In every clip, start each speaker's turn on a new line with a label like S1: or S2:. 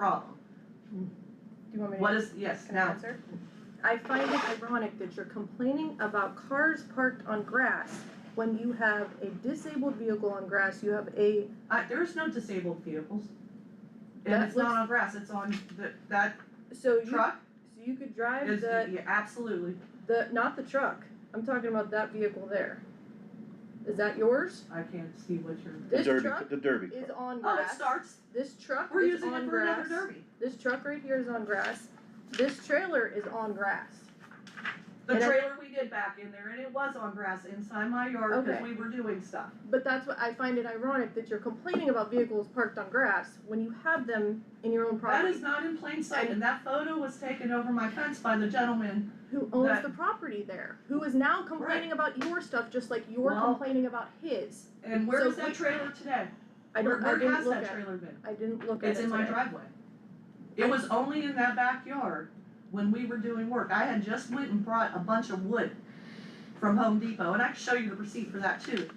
S1: problem.
S2: Do you want me to?
S1: What is, yes,
S2: Can I
S1: now,
S2: answer? I find it ironic that you're complaining about cars parked on grass when you have a disabled vehicle on grass, you have a,
S1: I, there's no disabled vehicles. And
S2: That
S1: it's not
S2: looks-
S1: on grass, it's on the, that
S2: so you, so
S1: truck
S2: you could drive
S1: is,
S2: the,
S1: yeah, absolutely,
S2: the, not the truck, I'm talking about that vehicle there. Is that yours?
S1: I can't see what you're.
S2: This
S3: the derby,
S2: truck
S3: the derby
S2: is
S3: truck.
S2: on
S1: Oh, it
S2: grass,
S1: starts,
S2: this truck
S1: we're
S2: is
S1: using
S2: on
S1: it for another
S2: grass,
S1: derby.
S2: this truck right here is on grass, this trailer is on grass.
S1: The
S2: And I-
S1: trailer we did back in there and it was on grass inside my yard because
S2: Okay.
S1: we were doing stuff.
S2: But that's what, I find it ironic that you're complaining about vehicles parked on grass when you have them in your own property.
S1: That is not in plain sight and that photo was taken over my fence by the gentleman.
S2: who owns
S1: that-
S2: the property there, who is now complaining about your stuff just like you're
S1: Well-
S2: complaining about his.
S1: And where
S2: So
S1: is that
S2: we-
S1: trailer today?
S2: I
S1: Where,
S2: don't. I
S1: where
S2: didn't
S1: has
S2: look
S1: that
S2: at.
S1: trailer been?
S2: I didn't look at
S1: It's
S2: it
S1: in my
S2: today.
S1: driveway. It was only in that backyard when we were doing work. I had just went and brought a bunch of wood from Home Depot, and I can show you the receipt for that too,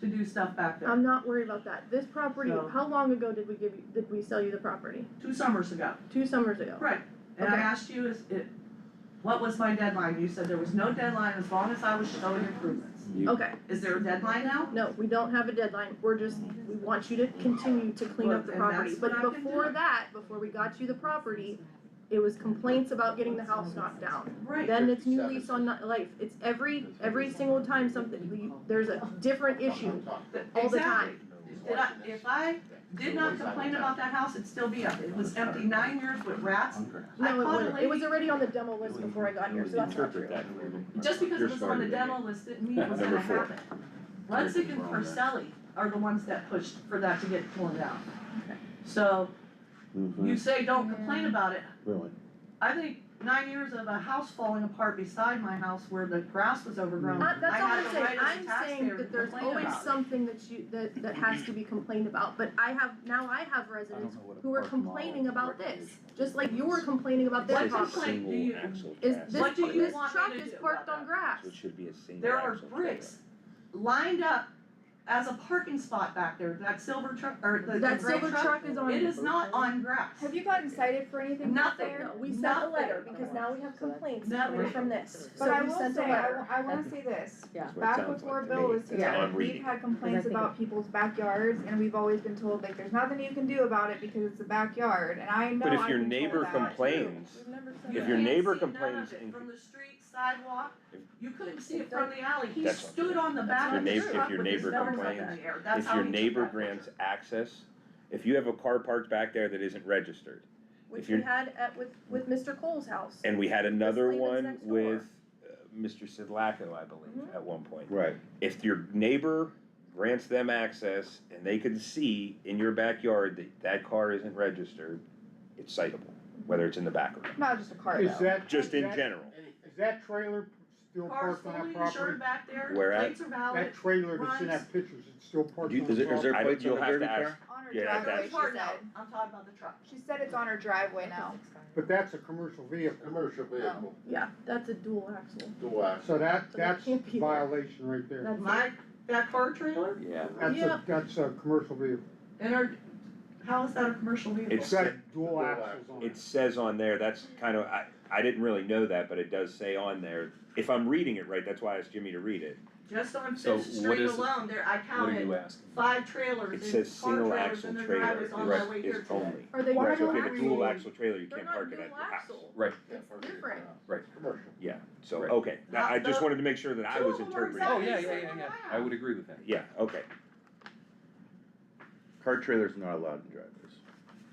S1: to do stuff back there,
S2: I'm not worried about that. This property.
S1: So-
S2: How long ago did we give you? Did we sell you the property?
S1: two summers ago.
S2: Two summers ago.
S1: Right, and I
S2: Okay.
S1: asked you, is it, what was my deadline? You said there was no deadline as long as I was showing improvements.
S3: You-
S2: Okay.
S1: Is there a deadline now?
S2: No, we don't have a deadline. We're just we want you to continue to clean up the
S1: Well, then
S2: property.
S1: that's
S2: But
S1: what I can
S2: before
S1: do.
S2: that, before we got you the property, it was complaints about getting the house knocked down.
S1: Right,
S2: Then it's new
S3: 57.
S2: lease on ni- life. It's every, every single time something, you- there's a different issue.
S1: th-
S2: all the
S1: exactly. Did I, if I did not complain about that house, it'd still be up. It was empty nine years with rats. I
S2: No, it
S1: caught a
S2: wasn't. It
S1: lady-
S2: was already on the demo list before I got here, so that's not true.
S1: Just because it
S3: You're
S1: was on the
S3: smarter than
S1: demo list didn't mean it was
S3: Number
S1: gonna
S3: four.
S1: happen. Ludwig and Porcelli are the ones that pushed for that to get pulled out. So
S3: Mhm.
S1: you say don't complain about it.
S3: Really?
S1: I think nine years of a house falling apart beside my house where the grass was overgrown.
S2: Uh, that's
S1: I
S2: all
S1: had
S2: I'm
S1: the
S2: saying.
S1: right as a
S2: I'm
S1: taxpayer
S2: saying
S1: to
S2: that there's
S1: complain
S2: always
S1: about it.
S2: something that you, that, that has to be complained about, but I have, now I have residents who are complaining about this, just like you were complaining about their
S1: What
S2: property.
S1: complaint do you-
S2: Is
S1: What
S2: this,
S1: do you
S2: this
S1: want me
S2: truck
S1: to
S2: is
S1: do
S2: parked
S1: about
S2: on
S1: that?
S2: grass.
S3: So it should be a single
S1: There are
S3: axle trailer.
S1: bricks lined up as a parking spot back there. That silver truck, or the the
S2: That
S1: gray
S2: silver truck is on.
S1: It is not on grass.
S4: Have you gotten cited for anything that's
S1: Nothing.
S4: there?
S2: No, we sent a
S1: Nothing.
S2: letter because now we have complaints coming
S1: Nothing.
S2: from this, so
S4: But I
S2: we
S4: will
S2: sent a
S4: say, I,
S2: letter.
S4: wa- I wanna say this,
S3: That's what it
S4: back
S3: sounds
S4: before
S3: like to
S4: Bill
S3: me.
S4: was
S3: That's all
S4: here,
S3: I'm
S4: we've
S3: reading.
S4: had complaints
S5: think
S4: about people's backyards, and we've always been told, like, there's nothing you can do about it because it's a backyard, and I know
S6: But if
S4: I've
S6: your
S4: been told
S6: neighbor
S4: that.
S6: complains,
S2: We've never sent
S6: If
S2: that.
S6: your
S1: You can't
S6: neighbor
S1: see none of
S6: complains
S1: it
S6: and-
S1: From the street sidewalk,
S6: If-
S1: you couldn't see it
S2: If that-
S1: from the alley, he
S6: That's not
S1: stood
S6: true.
S1: on the back
S2: your
S1: of his
S2: neighbor- if
S1: truck
S6: your
S1: with his
S6: neighbor
S1: nose up in
S6: complains,
S1: the air, that's
S6: If
S1: how
S6: your
S1: he took
S6: neighbor
S1: that
S6: grants
S1: picture.
S6: access, if you have a car parked back there that isn't registered,
S2: Which
S6: if
S2: we
S6: you're-
S2: had at, with, with Mr. Cole's house.
S6: and we had another
S2: leave it
S6: one
S2: next door.
S6: with uh, Mr. Sidlaco, I believe,
S2: Mhm.
S6: at one point.
S3: Right,
S6: If your neighbor grants them access and they can see in your backyard that that car isn't registered, it's citable, whether it's in the back or not.
S4: Not just a car
S7: Is
S4: though.
S7: that?
S6: just in
S7: that-
S6: general.
S7: Is that trailer still
S1: Car's
S7: parked on
S1: fully
S7: that
S1: insured
S7: property?
S1: back there,
S6: Where at?
S1: plates are valid.
S7: That trailer that's in
S1: runs-
S7: that picture, is it still parked
S3: You-
S7: on the
S3: is it- is there
S7: property?
S6: I
S3: plates
S6: don't, you'll
S3: on the
S6: have
S3: dirty
S6: to ask.
S3: car?
S4: On her
S6: Yeah,
S1: That
S4: driveway,
S6: that's-
S4: she
S1: part now,
S4: said,
S1: I'm talking about the truck.
S4: she said it's on her driveway now.
S7: But that's a commercial vehicle,
S8: Commercial vehicle,
S2: Yeah, that's a dual axle.
S8: do I?
S7: so that,
S2: So Oh. they
S7: that's
S2: can't be there.
S7: violation right there.
S2: That's
S1: My, that car trailer,
S3: Yeah.
S7: That's
S2: Yeah.
S7: a, that's a commercial vehicle,
S1: and our, how is that a commercial vehicle?
S6: It's-
S7: it's got dual
S8: Dual
S7: axles on
S6: It
S7: it.
S6: says on there, that's kind of, I, I didn't really know that, but it does say on there, if I'm reading it right, that's why I asked Jimmy to read it.
S1: Just on
S3: So
S1: Fifth
S3: what
S1: Street
S3: is-
S1: alone, there, I counted
S3: asking?
S1: five trailers
S6: It
S1: and
S6: says
S1: car
S6: single
S1: trailers
S6: axle
S1: and their
S6: trailer
S1: drivers on my way
S6: is,
S1: here
S6: is
S1: today.
S6: only.
S2: Are they
S6: Right, so
S2: dual
S6: if you have a
S2: axle?
S6: dual axle trailer, you
S2: They're
S6: can't
S2: not
S6: park it
S2: dual
S6: at your house.
S2: axle.
S8: Yeah, for
S2: It's
S8: vehicle,
S2: different.
S8: uh,
S3: Right.
S8: Commercial.
S6: So,
S3: Right.
S6: okay, that, I
S1: Not
S6: just
S1: the-
S6: wanted to make sure that I
S1: Two
S6: was
S1: of them are
S6: interpreting.
S1: exactly
S3: Oh, yeah,
S1: the
S3: yeah,
S1: same
S3: yeah,
S1: as mine.
S3: I would agree with that.
S6: Yeah, okay.
S3: Car trailers not allowed in driveways.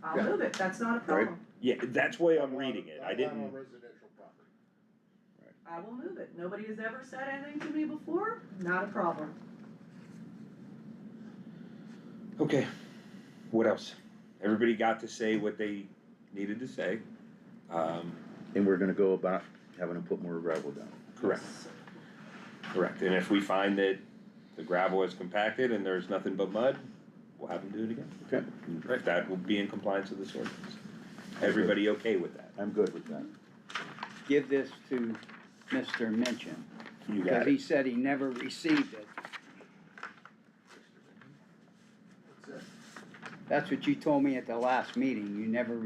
S1: I'll move it, that's not a problem.
S6: Yeah, that's why I'm
S8: Not
S6: reading
S8: on-
S6: it.
S8: not
S6: I
S8: on
S6: didn't,
S8: residential property.
S1: I will move it. Nobody has ever said anything to me before, not a problem.
S6: okay. What else? Everybody got to say what they needed to say. Um,
S3: And we're gonna go about having to put more gravel down.
S6: correct, correct. And if we find that the gravel is compacted and there's nothing but mud, we'll have them do it again.
S3: Okay.
S6: Right, that will be in compliance with this ordinance. Everybody okay with that?
S3: I'm good with that.
S9: give this to Mr. Minchin,
S6: You
S9: because
S6: got it?
S9: he said he never received it.
S8: That's it.
S9: That's what you told me at the last meeting, you never